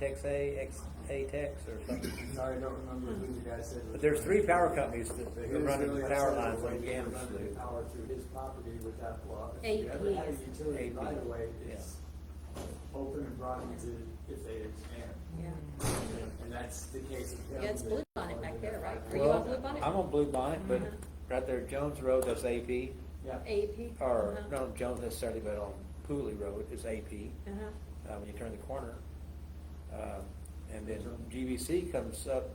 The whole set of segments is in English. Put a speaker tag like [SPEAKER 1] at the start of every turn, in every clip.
[SPEAKER 1] Tex A, X, A Tex or something.
[SPEAKER 2] Sorry, I don't remember who the guy said.
[SPEAKER 1] But there's three power companies that
[SPEAKER 2] He
[SPEAKER 1] are
[SPEAKER 2] was really
[SPEAKER 1] running power
[SPEAKER 2] upset
[SPEAKER 1] lines
[SPEAKER 2] when
[SPEAKER 1] on
[SPEAKER 2] he
[SPEAKER 1] Gamma
[SPEAKER 2] ran
[SPEAKER 1] Slough.
[SPEAKER 2] Power through his property with that block. If
[SPEAKER 3] AP
[SPEAKER 2] you ever had a
[SPEAKER 3] is-
[SPEAKER 2] utility
[SPEAKER 1] AP,
[SPEAKER 2] right away,
[SPEAKER 1] yeah.
[SPEAKER 2] it's open and broad into if they expand.
[SPEAKER 3] Yeah.
[SPEAKER 2] And that's the case. with them.
[SPEAKER 3] Yeah, it's Blue Bonnet back there, right? Are you
[SPEAKER 1] Well,
[SPEAKER 3] on Blue Bonnet?
[SPEAKER 1] I'm on Blue Bonnet, but
[SPEAKER 3] Mhm.
[SPEAKER 1] right there, Jones Road, that's AP,
[SPEAKER 2] Yeah.
[SPEAKER 3] AP.
[SPEAKER 1] or,
[SPEAKER 3] Uh-huh.
[SPEAKER 1] not on Jones necessarily, but on Pooley Road is AP,
[SPEAKER 3] Uh-huh.
[SPEAKER 1] uh, when you turn the corner. Um, And then GVC comes up,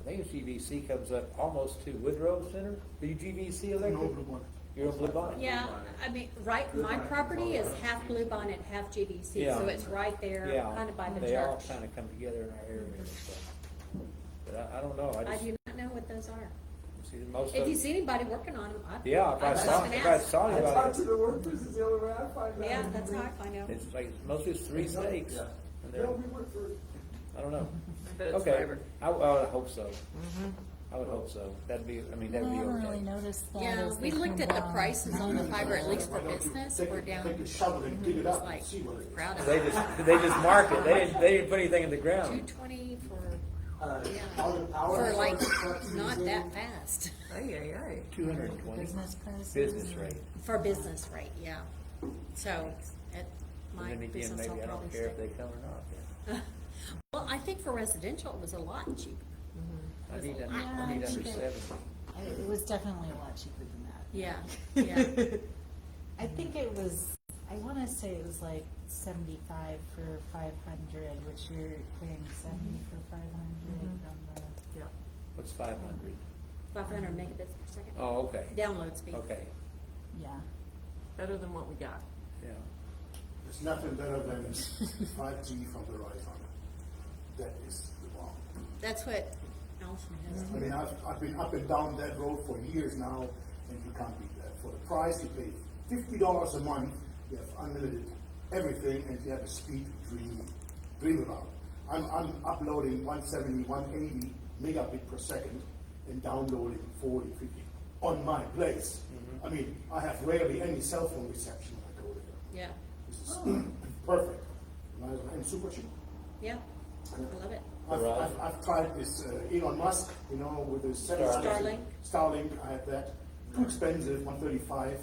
[SPEAKER 1] I think it's GVC comes up almost to Woodrow Center, are you GVC electric? You're on Blue Bonnet?
[SPEAKER 3] Yeah, I mean, right, my property is half Blue Bonnet, half GBC,
[SPEAKER 1] Yeah.
[SPEAKER 3] so it's right there,
[SPEAKER 1] Yeah,
[SPEAKER 3] kind of by the
[SPEAKER 1] They all
[SPEAKER 3] church.
[SPEAKER 1] kind of come together in our area, so. But I, I don't know, I
[SPEAKER 3] I
[SPEAKER 1] just
[SPEAKER 3] do not know what those are.
[SPEAKER 1] see that most of.
[SPEAKER 3] If you see anybody working on them, I.
[SPEAKER 1] Yeah, if I
[SPEAKER 3] must
[SPEAKER 1] saw,
[SPEAKER 3] have
[SPEAKER 1] if I
[SPEAKER 3] asked.
[SPEAKER 1] saw
[SPEAKER 2] I talked to
[SPEAKER 1] anybody,
[SPEAKER 2] the workers, is the only way I find out.
[SPEAKER 3] Yeah, that's how I find out.
[SPEAKER 1] it's like, mostly it's three stakes,
[SPEAKER 2] Yeah.
[SPEAKER 1] and
[SPEAKER 2] Yeah,
[SPEAKER 1] they're,
[SPEAKER 2] we work for,
[SPEAKER 1] I don't know.
[SPEAKER 4] But it's
[SPEAKER 1] Okay,
[SPEAKER 4] fiber.
[SPEAKER 1] I, I would hope so.
[SPEAKER 3] Mm-hmm.
[SPEAKER 1] I would hope so, that'd be, I mean,
[SPEAKER 5] I
[SPEAKER 1] that'd be
[SPEAKER 5] haven't really
[SPEAKER 1] okay.
[SPEAKER 5] noticed that.
[SPEAKER 3] Yeah,
[SPEAKER 5] as
[SPEAKER 3] we
[SPEAKER 5] they
[SPEAKER 3] looked
[SPEAKER 5] come
[SPEAKER 3] at the
[SPEAKER 5] down.
[SPEAKER 3] prices on the fiber, at least for business,
[SPEAKER 6] Take a-
[SPEAKER 3] we're down,
[SPEAKER 6] Take a
[SPEAKER 3] it's
[SPEAKER 6] shovel and dig it up
[SPEAKER 3] like,
[SPEAKER 6] and see what it is.
[SPEAKER 3] proud of
[SPEAKER 1] They
[SPEAKER 3] it.
[SPEAKER 1] just, they just mark it, they didn't, they didn't put anything in the
[SPEAKER 3] Two
[SPEAKER 1] ground.
[SPEAKER 3] twenty for,
[SPEAKER 2] uh,
[SPEAKER 3] yeah,
[SPEAKER 2] all the power.
[SPEAKER 3] for like,
[SPEAKER 2] trucks
[SPEAKER 3] not
[SPEAKER 2] using-
[SPEAKER 3] that fast,
[SPEAKER 4] Ay, ay, ay.
[SPEAKER 1] Two hundred and twenty,
[SPEAKER 5] Business prices.
[SPEAKER 1] business rate,
[SPEAKER 3] for business rate, yeah. So, at my
[SPEAKER 1] and then again,
[SPEAKER 3] business, I'll
[SPEAKER 1] maybe I
[SPEAKER 3] probably
[SPEAKER 1] don't care
[SPEAKER 3] stick.
[SPEAKER 1] if they come or not.
[SPEAKER 3] Well, I think for residential, it was a lot cheaper.
[SPEAKER 4] Mm-hmm.
[SPEAKER 1] I need, under-
[SPEAKER 5] Yeah,
[SPEAKER 1] I
[SPEAKER 5] I
[SPEAKER 1] need under
[SPEAKER 5] think it-
[SPEAKER 1] seventy.
[SPEAKER 5] It was definitely a lot cheaper than that.
[SPEAKER 3] Yeah, yeah.
[SPEAKER 5] I think it was, I want to say it was like seventy-five for five hundred, which you're paying seventy for five hundred
[SPEAKER 3] Mm-hmm.
[SPEAKER 5] on the.
[SPEAKER 4] Yeah.
[SPEAKER 1] What's five hundred?
[SPEAKER 3] Five hundred megabits per second.
[SPEAKER 1] Oh, okay,
[SPEAKER 3] Download speed.
[SPEAKER 1] okay,
[SPEAKER 5] Yeah.
[SPEAKER 4] Better than what we got.
[SPEAKER 1] yeah.
[SPEAKER 6] There's nothing better than five G from Verizon. That is the bomb.
[SPEAKER 3] That's what Allison has.
[SPEAKER 1] Mm-hmm.
[SPEAKER 6] I mean, I've, I've been up and down that road for years now, and you can't beat that. For the price, you pay fifty dollars a month, you have unlimited everything, and you have a speed dream, dream about. I'm, I'm uploading 170, 180 megabit per second and downloading 40, 50 on my place. I mean, I have rarely any cell phone reception when I go there.
[SPEAKER 3] Yeah,
[SPEAKER 6] This is perfect. Nice And super cheap.
[SPEAKER 3] yeah. I love it.
[SPEAKER 6] I've,
[SPEAKER 1] Right.
[SPEAKER 6] I've, I've tried this uh, Elon Musk, you know, with his satellite-
[SPEAKER 3] Starlink.
[SPEAKER 6] Starlink, I had that. Too expensive, 135 uh,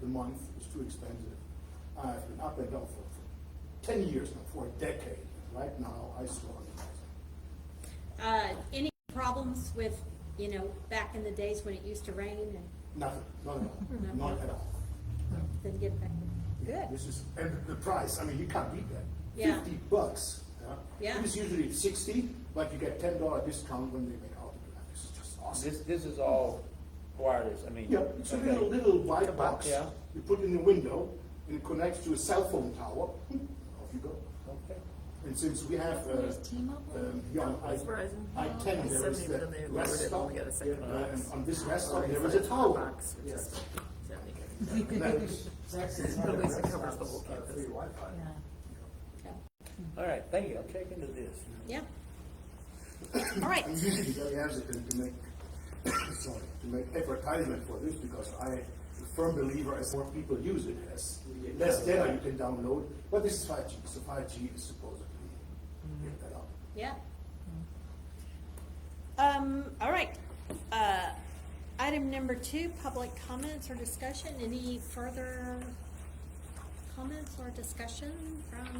[SPEAKER 6] the month is too expensive. I've been up and down for, for 10 years now, for a decade. Right now, I swear on it.
[SPEAKER 3] Uh, any problems with, you know, back in the days when it used to rain and
[SPEAKER 6] Nothing, not at all.
[SPEAKER 3] Nothing.
[SPEAKER 6] not at all.
[SPEAKER 3] then get back? Good.
[SPEAKER 6] This is, and the price, I mean, you can't beat that.
[SPEAKER 3] Yeah.
[SPEAKER 6] 50 bucks.
[SPEAKER 3] Yeah.
[SPEAKER 6] It is usually 60, but you get $10 discount when they make out. This is just awesome.
[SPEAKER 1] This, this is all wireless, I mean.
[SPEAKER 6] Yeah, it's a
[SPEAKER 1] okay.
[SPEAKER 6] little, little white box
[SPEAKER 1] yeah.
[SPEAKER 6] you put in the window and it connects to a cell phone tower. Off you go.
[SPEAKER 1] Okay.
[SPEAKER 6] And since we have, uh,
[SPEAKER 5] Where's T-Mobile?
[SPEAKER 6] um, yeah, on I,
[SPEAKER 4] That's Verizon.
[SPEAKER 6] I ten, there is
[SPEAKER 4] Seventy,
[SPEAKER 6] that
[SPEAKER 4] then they lowered
[SPEAKER 6] rest
[SPEAKER 4] it when
[SPEAKER 6] stop.
[SPEAKER 4] we got a second
[SPEAKER 6] uh, and
[SPEAKER 4] box.
[SPEAKER 6] On this rest stop,
[SPEAKER 4] Or
[SPEAKER 6] there
[SPEAKER 4] it's
[SPEAKER 6] is a
[SPEAKER 4] like
[SPEAKER 6] tower.
[SPEAKER 4] box, which
[SPEAKER 6] Yes.
[SPEAKER 4] is seventy.
[SPEAKER 6] And that is-
[SPEAKER 2] Texas
[SPEAKER 4] At least
[SPEAKER 2] has
[SPEAKER 4] it
[SPEAKER 2] a
[SPEAKER 4] covers the
[SPEAKER 2] rest
[SPEAKER 4] whole
[SPEAKER 2] stop, uh,
[SPEAKER 4] campus.
[SPEAKER 2] free Wi-Fi.
[SPEAKER 5] Yeah.
[SPEAKER 1] All right, thank you, I'll check into this.
[SPEAKER 3] Yeah. All right.
[SPEAKER 6] I'm usually very hesitant to make, sorry, to make advertisement for this because I, am a firm believer as more people use it, as less data you can download. But this is five G, so five G is supposedly, get that up.
[SPEAKER 3] Yeah. Um, all right. Uh, item number two, public comments or discussion. Any further comments or discussion from?
[SPEAKER 2] Had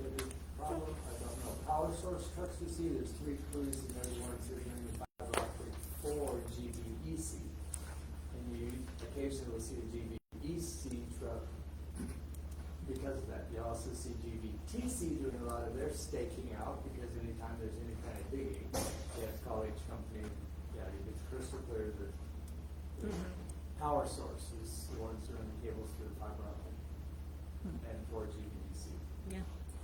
[SPEAKER 2] a big problem, I don't know. Power source trucks you see, there's three crews and everyone's sitting in the fiber optic for GBEC. And you occasionally will see a GBEC E truck because of that. You also see GBTC doing a lot of their staking out because anytime there's any kind of digging, you have to call each company, yeah, it's crystal clear that the
[SPEAKER 3] Mm-hmm.
[SPEAKER 2] power source is the ones doing the cables through the fiber optic and for GBEC.
[SPEAKER 3] Hmm. Yeah.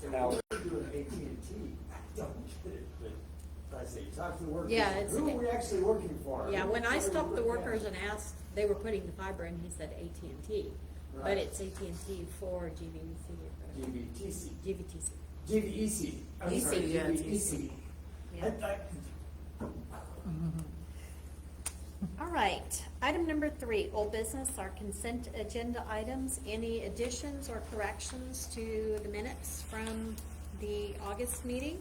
[SPEAKER 2] And
[SPEAKER 1] Now-
[SPEAKER 2] we're doing AT&T. I don't get it, but I say, talk to the workers.
[SPEAKER 3] Yeah, it's-
[SPEAKER 2] Who are we actually working for?
[SPEAKER 3] Yeah, when I
[SPEAKER 2] Who are we
[SPEAKER 3] stopped the
[SPEAKER 2] working
[SPEAKER 3] workers
[SPEAKER 2] for?
[SPEAKER 3] and asked, they were putting the fiber in, he said AT&T. But
[SPEAKER 2] Right.
[SPEAKER 3] it's AT&T for GVC,
[SPEAKER 2] GBTC,
[SPEAKER 3] GVTC.
[SPEAKER 2] GBEC, E I'm
[SPEAKER 4] EC,
[SPEAKER 2] sorry,
[SPEAKER 4] yeah, it's
[SPEAKER 2] GBEC.
[SPEAKER 3] Yeah.
[SPEAKER 2] I- I-
[SPEAKER 3] All right, item number three, old business, our consent agenda items. Any additions or corrections to the minutes from the August meeting.